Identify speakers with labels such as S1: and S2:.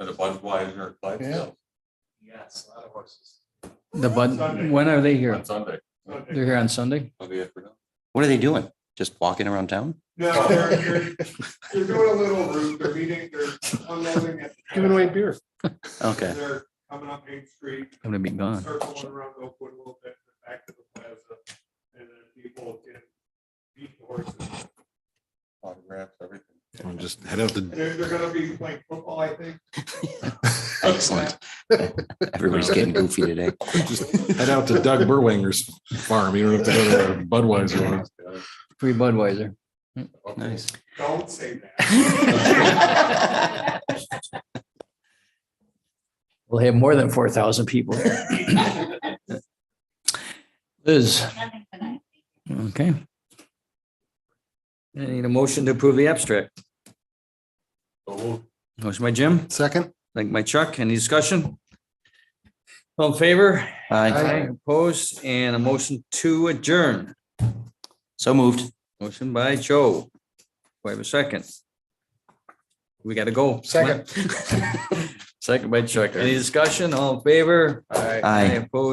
S1: at a Budweiser at Clydesdale
S2: Yes, a lot of horses.
S3: The
S2: Sunday.
S3: Bud, when are they here?
S1: on Sunday,
S3: They're here on Sunday?
S1: Sunday afternoon.
S4: What are they doing? Just walking around town?
S2: No, they're, they're, they're doing a little route, they're meeting, they're unloading at.
S5: Giving away beer.
S4: Okay,
S2: They're coming up Main Street,
S3: I'm gonna be gone.
S2: circling around Oakwood a little bit, back to the plaza, and then people can beat the horses.
S1: Autographs, everything.
S6: I'm just head out the,
S2: They're, they're gonna be playing football, I think.
S4: excellent. Everybody's getting goofy today.
S6: just head out to Doug Burwanger's farm. You don't have to go to Budweiser. one.
S3: Free Budweiser.
S4: Nice.
S2: Don't say that.
S3: We'll have more than four thousand people. Liz,
S7: Nothing tonight.
S3: okay. I need a motion to approve the abstract.
S1: So we'll
S3: Motion by Jim,
S6: Second?
S3: second by Chuck. Any discussion? All in favor?
S4: Hi,
S3: Opposed and a motion to adjourn.
S4: so moved.
S3: Motion by Joe. Wait a second. We gotta go. Second. Second by Chuck. Any discussion? All in favor?
S4: Aye.
S3: Opposed?